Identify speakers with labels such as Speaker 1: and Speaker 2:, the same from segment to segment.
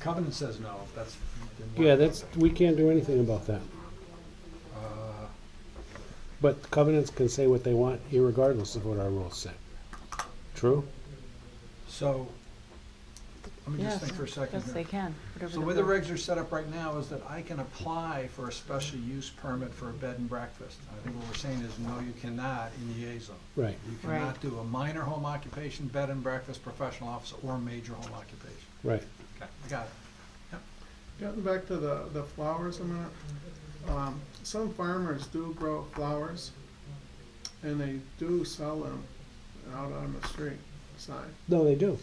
Speaker 1: covenant says no, that's. then what-
Speaker 2: Yeah, that's, we can't do anything about that.
Speaker 1: Uh,
Speaker 2: But covenants can say what they want irregardless of what our rules say. True?
Speaker 1: So, let me just
Speaker 3: Yes,
Speaker 1: think for a second
Speaker 3: Yes, they
Speaker 1: here.
Speaker 3: can. whatever
Speaker 1: So the way the
Speaker 3: rule-
Speaker 1: regs are set up right now is that I can apply for a special use permit for a bed and breakfast. I think what we're saying is, no, you cannot in the A zone.
Speaker 2: Right.
Speaker 1: You
Speaker 3: Right.
Speaker 1: cannot do a minor home occupation, bed and breakfast, professional office, or major home occupation.
Speaker 2: Right.
Speaker 1: Okay, got it.
Speaker 4: Getting back to the, the flowers a minute, um, some farmers do grow flowers, and they do sell them out on the street side.
Speaker 2: No, they do.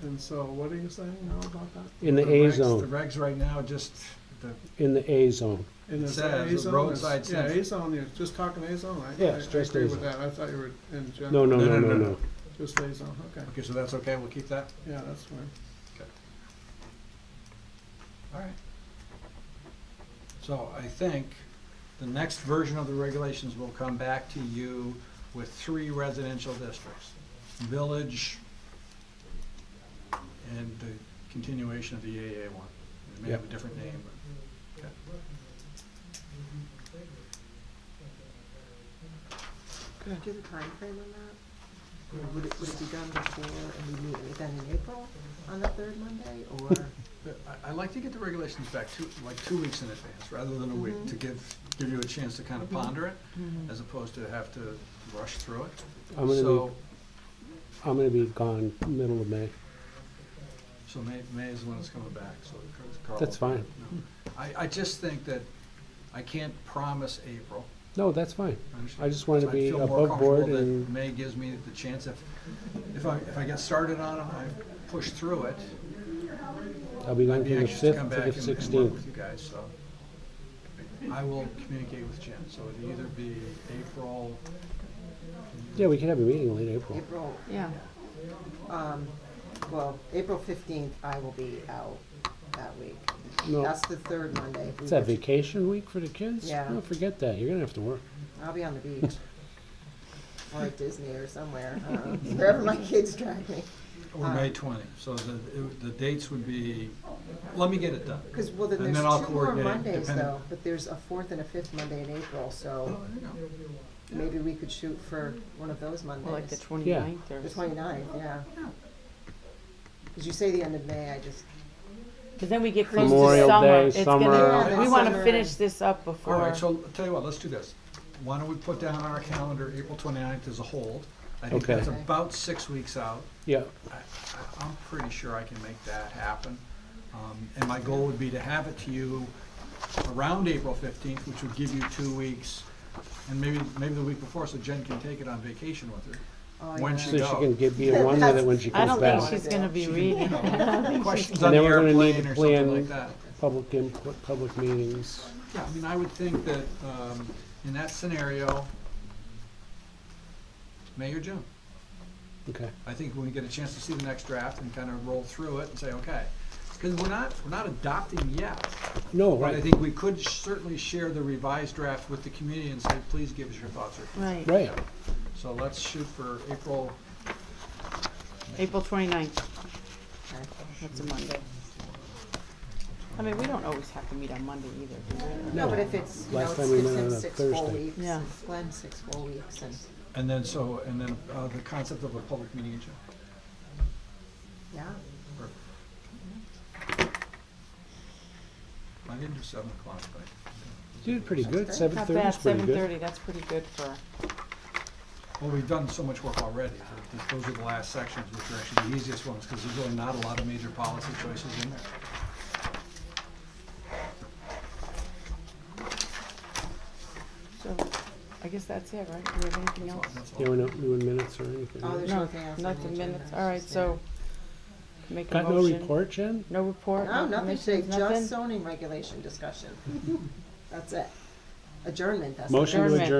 Speaker 4: And so what are you saying now about that?
Speaker 2: In the
Speaker 1: regs-
Speaker 2: A
Speaker 1: The
Speaker 2: zone,
Speaker 1: regs right now, just, the,
Speaker 2: in the A zone.
Speaker 4: And
Speaker 1: It
Speaker 4: is
Speaker 1: says
Speaker 4: that A zone?
Speaker 1: roadside
Speaker 4: Yeah,
Speaker 1: sense.
Speaker 4: A zone, you're just talking A zone, I, I
Speaker 2: Yeah, it's
Speaker 4: I
Speaker 2: just
Speaker 4: agree
Speaker 2: A
Speaker 4: with
Speaker 2: zone.
Speaker 4: that, I thought you were in
Speaker 2: No,
Speaker 4: general,
Speaker 2: no, no,
Speaker 1: No, no,
Speaker 2: no,
Speaker 1: no,
Speaker 2: no.
Speaker 4: just A zone, okay,
Speaker 1: okay, so that's okay, we'll keep that?
Speaker 4: yeah, that's fine.
Speaker 1: All right. So I think the next version of the regulations will come back to you with three residential districts. Village and the continuation of the AA one. It may have a
Speaker 2: Yep.
Speaker 1: different name, but, okay.
Speaker 5: Do you have a timeframe on that? I mean, Would it, would it be done before, and we meet again in April on the third Monday, or?
Speaker 1: But I, I like to get the regulations back two, like two weeks in advance, rather than a week,
Speaker 5: Mhm.
Speaker 1: to give, give you a chance to kind of
Speaker 5: Mhm.
Speaker 1: ponder it,
Speaker 3: Mhm.
Speaker 1: as opposed to have to rush through it.
Speaker 2: I'm gonna
Speaker 1: So-
Speaker 2: be, I'm gonna be gone middle of May.
Speaker 1: So May, May is when it's coming back, so Carl.
Speaker 2: That's fine.
Speaker 1: I, I just think that I can't promise April.
Speaker 2: No, that's fine.
Speaker 1: understand.
Speaker 2: I just wanted to
Speaker 1: I
Speaker 2: be
Speaker 1: feel more
Speaker 2: above board
Speaker 1: comfortable that
Speaker 2: and-
Speaker 1: May gives me the chance if, if I, if I get started on it, I push through it.
Speaker 2: I'll be
Speaker 1: I'd
Speaker 2: gone
Speaker 1: be
Speaker 2: from the
Speaker 1: anxious to
Speaker 2: fifth
Speaker 1: come
Speaker 2: to
Speaker 1: back
Speaker 2: the
Speaker 1: and and work
Speaker 2: sixteenth.
Speaker 1: with you guys, so. I will communicate with Jen, so it'd either be April,
Speaker 2: Yeah, we can have a meeting late April.
Speaker 5: April,
Speaker 3: Yeah,
Speaker 5: um, well, April fifteenth, I will be out that week.
Speaker 2: No,
Speaker 5: That's the third Monday. if we
Speaker 2: it's that
Speaker 5: were to-
Speaker 2: vacation week for the kids?
Speaker 5: Yeah.
Speaker 2: No, forget that. You're gonna have to work.
Speaker 5: I'll be on the beach. Or at Disney or somewhere, I don't know, wherever my kids drag me.
Speaker 1: or May twenty, so the, it- the dates would be, let me get it done.
Speaker 5: Because, well, then
Speaker 1: And
Speaker 5: there's
Speaker 1: then I'll
Speaker 5: two more
Speaker 1: coordinate,
Speaker 5: Mondays
Speaker 1: depending-
Speaker 5: though, but there's a fourth and a fifth Monday in April, so
Speaker 1: Oh, there you go.
Speaker 5: maybe we could shoot for one of those Mondays.
Speaker 3: well, like the 29th or.
Speaker 5: The twenty-ninth, yeah. Because you say the end of May, I just,
Speaker 3: Because then we get close to
Speaker 2: Memorial
Speaker 3: summer.
Speaker 2: Day,
Speaker 3: It's
Speaker 2: summer.
Speaker 3: gonna,
Speaker 5: Yeah,
Speaker 3: we
Speaker 5: the
Speaker 3: want to
Speaker 5: summer.
Speaker 3: finish this up
Speaker 1: All
Speaker 3: before.
Speaker 2: Uh-huh.
Speaker 1: right, so I'll tell you what, let's do this. Why don't we put down on our calendar, April 29th as a hold? I think
Speaker 2: Okay.
Speaker 1: that's
Speaker 5: Okay.
Speaker 1: about six weeks out.
Speaker 2: Yeah,
Speaker 1: I- I- I'm pretty sure I can make that happen. Um, And my goal would be to have it to you around April 15th, which would give you two weeks, and maybe, maybe the week before, so Jen can take it on vacation with her.
Speaker 5: oh,
Speaker 1: When
Speaker 5: yeah.
Speaker 2: so she
Speaker 1: go.
Speaker 2: can get, be in one with it when she
Speaker 3: I
Speaker 2: comes
Speaker 3: don't think
Speaker 2: back.
Speaker 3: she's gonna be reading.
Speaker 1: Questions
Speaker 2: And
Speaker 1: on the
Speaker 2: then we're gonna need
Speaker 1: airplane
Speaker 2: to
Speaker 1: or something
Speaker 2: plan-
Speaker 1: like that.
Speaker 2: Public input, public meetings.
Speaker 1: Yeah, I mean, I would think that um, in that scenario, May or June.
Speaker 2: Okay,
Speaker 1: I think when we get a chance to see the next draft and kind of roll through it and say, okay, because we're not, we're not adopting yet.
Speaker 2: no,
Speaker 1: But I
Speaker 2: right,
Speaker 1: think we could certainly share the revised draft with the community and say, please give us your thoughts. or-
Speaker 3: Right,
Speaker 2: right.
Speaker 1: So let's shoot for April,
Speaker 3: April 29th. That's a Monday. I mean, we don't always have to meet on Monday either, do we?
Speaker 5: No, but if it's, you know,
Speaker 2: Last
Speaker 5: it's
Speaker 2: time we
Speaker 5: it's
Speaker 2: met
Speaker 5: in
Speaker 2: on a
Speaker 5: six full
Speaker 2: Thursday.
Speaker 5: weeks,
Speaker 3: Yeah.
Speaker 5: it's Glenn six full weeks, and,
Speaker 1: and then so, and then uh, the concept of a public meeting in June.
Speaker 5: yeah.
Speaker 1: I didn't do seven o'clock, but,
Speaker 2: You Did pretty good.
Speaker 5: Not
Speaker 2: Seven
Speaker 3: Not
Speaker 2: thirty
Speaker 3: bad,
Speaker 2: is pretty
Speaker 3: seven
Speaker 2: good.
Speaker 3: thirty, that's pretty good for,
Speaker 1: well, we've done so much work already. Th- Those are the last sections, which are actually the easiest ones, because there's really not a lot of major policy choices in there.
Speaker 3: so, I guess that's it, right? Do we have anything
Speaker 1: That's all-
Speaker 3: else?
Speaker 1: that's all.
Speaker 2: Yeah, we're not doing minutes or anything.
Speaker 5: Oh,
Speaker 2: right?
Speaker 5: there's
Speaker 3: No,
Speaker 5: nothing else on
Speaker 3: not
Speaker 5: the
Speaker 3: the
Speaker 5: agenda,
Speaker 3: minutes,
Speaker 5: it's
Speaker 3: all right,
Speaker 5: just
Speaker 3: so, make a
Speaker 2: Got no
Speaker 3: motion.
Speaker 2: report, Jen?
Speaker 3: No report,
Speaker 5: No,
Speaker 3: no
Speaker 5: nothing today,
Speaker 3: commissions,
Speaker 5: just uh,
Speaker 3: nothing?
Speaker 5: zoning regulation discussion. That's it. Adjournment, that's it.
Speaker 2: Motion to
Speaker 3: Adjournment.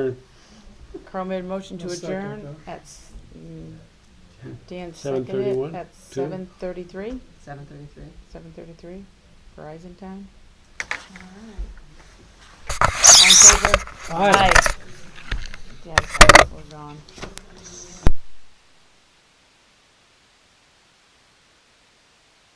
Speaker 2: adjourn,
Speaker 3: Carl made a motion to
Speaker 4: I'll second
Speaker 3: adjourn at, s- mm, Dan
Speaker 2: Seven
Speaker 3: seconded it
Speaker 2: thirty-one,
Speaker 3: at
Speaker 2: two.
Speaker 3: seven thirty-three,
Speaker 5: Seven thirty-three.
Speaker 3: seven thirty-three, Verizon time.
Speaker 5: All right.
Speaker 3: All in favor?
Speaker 2: Aye.
Speaker 3: Yes, that was on.